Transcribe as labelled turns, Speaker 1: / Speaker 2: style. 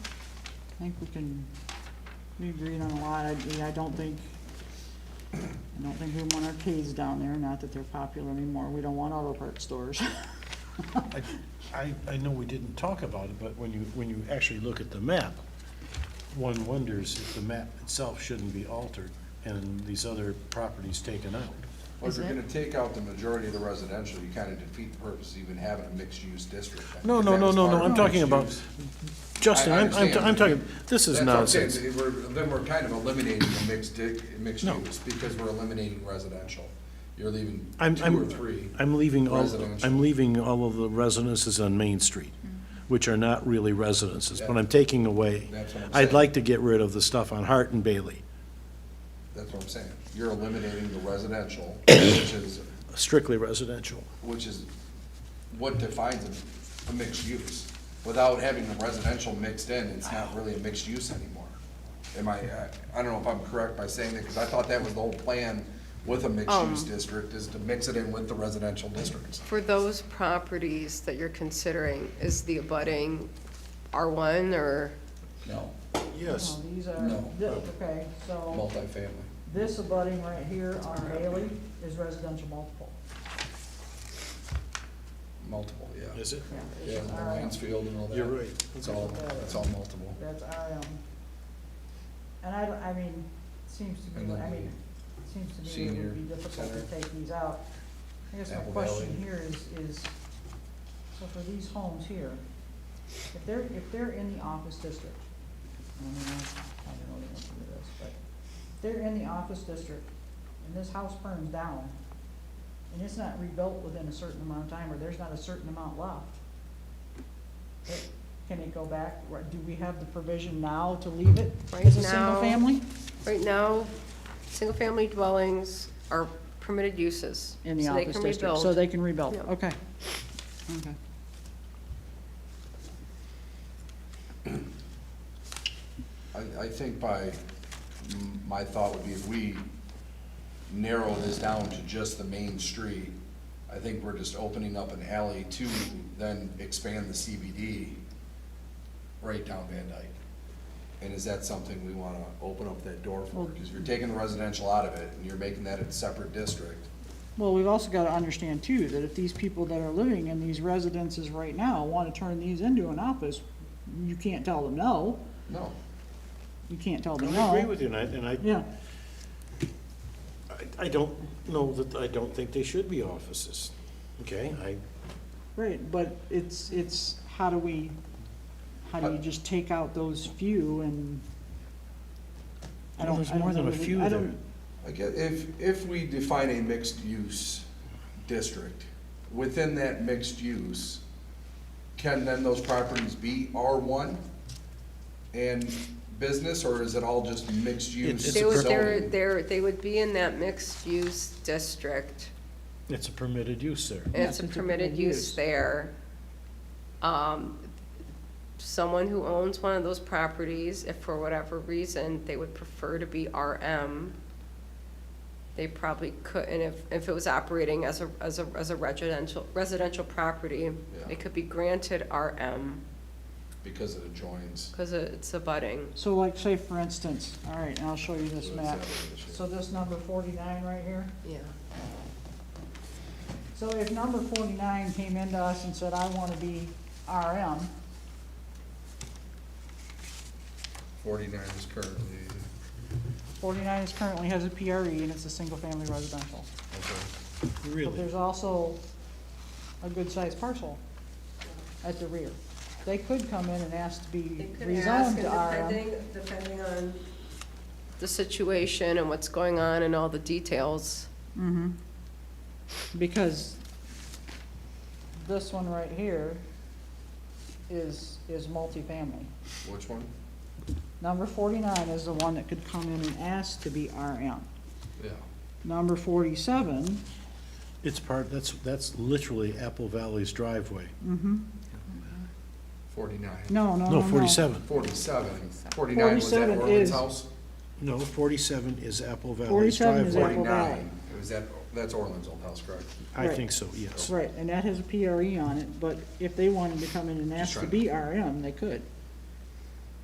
Speaker 1: think we can, we agreed on a lot, I, mean, I don't think, I don't think we want arcades down there, not that they're popular anymore, we don't want auto parts stores.
Speaker 2: I- I, I know we didn't talk about it, but when you, when you actually look at the map, one wonders if the map itself shouldn't be altered and these other properties taken out.
Speaker 3: Well, if
Speaker 1: Is
Speaker 3: you're
Speaker 1: it?
Speaker 3: gonna take out the majority of the residential, you kinda defeat the purpose of even having a mixed-use district. I
Speaker 2: No,
Speaker 3: think
Speaker 2: no,
Speaker 3: that
Speaker 2: no,
Speaker 3: was
Speaker 2: no,
Speaker 3: part
Speaker 2: no,
Speaker 3: of
Speaker 2: I'm
Speaker 3: the
Speaker 2: talking about,
Speaker 3: mixed-use.
Speaker 2: Justin,
Speaker 3: I- I
Speaker 2: I'm, I'm,
Speaker 3: understand.
Speaker 2: I'm talking, this is
Speaker 3: That's what I'm saying,
Speaker 2: nonsense.
Speaker 3: that we're- Then we're kind of eliminating the mixed, di- mixed
Speaker 2: No.
Speaker 3: use, because we're eliminating residential. You're leaving
Speaker 2: I'm,
Speaker 3: two or
Speaker 2: I'm,
Speaker 3: three.
Speaker 2: I'm leaving all,
Speaker 3: residential.
Speaker 2: I'm leaving all of the residences on Main Street, which are not really residences, but
Speaker 3: Yeah.
Speaker 2: I'm taking away.
Speaker 3: That's what I'm
Speaker 2: I'd
Speaker 3: saying.
Speaker 2: like to get rid of the stuff on Hart and Bailey,
Speaker 3: That's what I'm saying. You're eliminating the residential, which is,
Speaker 2: strictly residential.
Speaker 3: which is what defines a, a mixed use. Without having the residential mixed in, it's not really a mixed use anymore. Am I, I- I don't know if I'm correct by saying that, because I thought that was the whole plan with a mixed use district, is to mix it in with the residential districts.
Speaker 4: For those properties that you're considering, is the abutting R1 or,
Speaker 3: No,
Speaker 2: Yes.
Speaker 1: No, These are,
Speaker 3: No.
Speaker 1: thi- okay, so
Speaker 3: multifamily.
Speaker 1: this abutting right here on Bailey is residential multiple.
Speaker 3: Multiple, yeah.
Speaker 2: Is it?
Speaker 1: Yeah,
Speaker 3: Yeah,
Speaker 1: it's
Speaker 3: and the
Speaker 1: RM.
Speaker 3: Lansfield and all that.
Speaker 2: You're right.
Speaker 3: It's all, it's all multiple.
Speaker 1: That's RM. And I, don't- I mean, seems to
Speaker 3: And
Speaker 1: be,
Speaker 3: then
Speaker 1: I mean, seems to me it would be
Speaker 3: senior
Speaker 1: difficult to
Speaker 3: center.
Speaker 1: take these out. I guess my
Speaker 3: Apple
Speaker 1: question
Speaker 3: Valley.
Speaker 1: here is, is, so for these homes here, if they're, if they're in the office district, I mean, I don't know the answer to this, but if they're in the office district and this house burns down and it's not rebuilt within a certain amount of time, or there's not a certain amount left, it- can it go back? Or Do we have the provision now to leave it
Speaker 4: Right
Speaker 1: as a single
Speaker 4: now-
Speaker 1: family?
Speaker 4: right now, single-family dwellings are permitted uses.
Speaker 1: In the
Speaker 4: so they
Speaker 1: office
Speaker 4: can
Speaker 1: district,
Speaker 4: rebuild.
Speaker 1: so they can rebuild,
Speaker 4: Yeah.
Speaker 1: okay. Okay.
Speaker 3: I, I think by, m- my thought would be if we narrow this down to just the main street, I think we're just opening up an alley to then expand the CBD right down Van Dyke. And is that something we wanna open up that door for? Because if you're taking the residential out of it and you're making that a separate district,
Speaker 1: Well, we've also got to understand too, that if these people that are living in these residences right now want to turn these into an office, you can't tell them no,
Speaker 3: no.
Speaker 1: you can't tell them no.
Speaker 2: I agree with you, and I, and I,
Speaker 1: Yeah,
Speaker 2: I- I don't know that, I don't think they should be offices, okay? I,
Speaker 1: right, but it's, it's, how do we, how do you just take out those few and? I
Speaker 2: Well,
Speaker 1: don't-
Speaker 2: there's
Speaker 1: I don't
Speaker 2: more than
Speaker 1: know
Speaker 2: a
Speaker 1: that we-
Speaker 2: few
Speaker 1: I
Speaker 2: there.
Speaker 1: don't-
Speaker 3: I guess if, if we define a mixed-use district, within that mixed use, can then those properties be R one and business, or is it all just mixed use?
Speaker 2: It's
Speaker 4: They
Speaker 2: a
Speaker 4: would,
Speaker 2: per-
Speaker 4: they're,
Speaker 3: zoning?
Speaker 4: they're, they would be in that mixed-use district,
Speaker 2: it's a permitted use there.
Speaker 4: and it's
Speaker 1: Yes,
Speaker 4: a permitted use there. Um, Someone who owns one of those properties, if for whatever reason, they would prefer to be RM, they probably could, and if, if it was operating as a, as a, as a residential, residential property,
Speaker 3: Yeah.
Speaker 4: it could be granted RM,
Speaker 3: Because it adjoins.
Speaker 4: because it's abutting.
Speaker 1: So like, say for instance, all right, and I'll show you this
Speaker 3: So it's
Speaker 1: map.
Speaker 3: that issue.
Speaker 1: So this number forty-nine right here,
Speaker 4: Yeah.
Speaker 1: so if number forty-nine came into us and said, I want to be RM,
Speaker 3: Forty-nine is currently,
Speaker 1: forty-nine is currently has a PRE and it's a single-family residential.
Speaker 3: okay,
Speaker 1: But
Speaker 2: Really?
Speaker 1: there's also a good-sized parcel at the rear. They could come in and ask to be rezoned to RM.
Speaker 4: depending on. The situation and what's going on and all the details.
Speaker 1: Mhm. Because this one right here is, is multifamily.
Speaker 3: which one?
Speaker 1: Number forty-nine is the one that could come in and ask to be RM.
Speaker 3: Yeah.
Speaker 1: Number forty-seven,
Speaker 2: It's part, that's, that's literally Apple Valley's driveway.
Speaker 3: Forty-nine.
Speaker 1: no, no, no,
Speaker 2: No,
Speaker 1: no.
Speaker 2: forty-seven.
Speaker 3: Forty-seven. Forty-nine was that
Speaker 1: 47
Speaker 3: Orland's
Speaker 1: is-
Speaker 3: house?
Speaker 2: No, forty-seven is Apple Valley's
Speaker 1: 47 is
Speaker 2: driveway.
Speaker 1: Apple Valley.
Speaker 3: Forty-nine, it was that, that's Orland's old house, correct?
Speaker 2: I
Speaker 1: Right.
Speaker 2: think so, yes.
Speaker 1: E Right, and that has a PRE on it, but if they wanted to come in and ask to
Speaker 3: trying to-
Speaker 1: be RM, they could.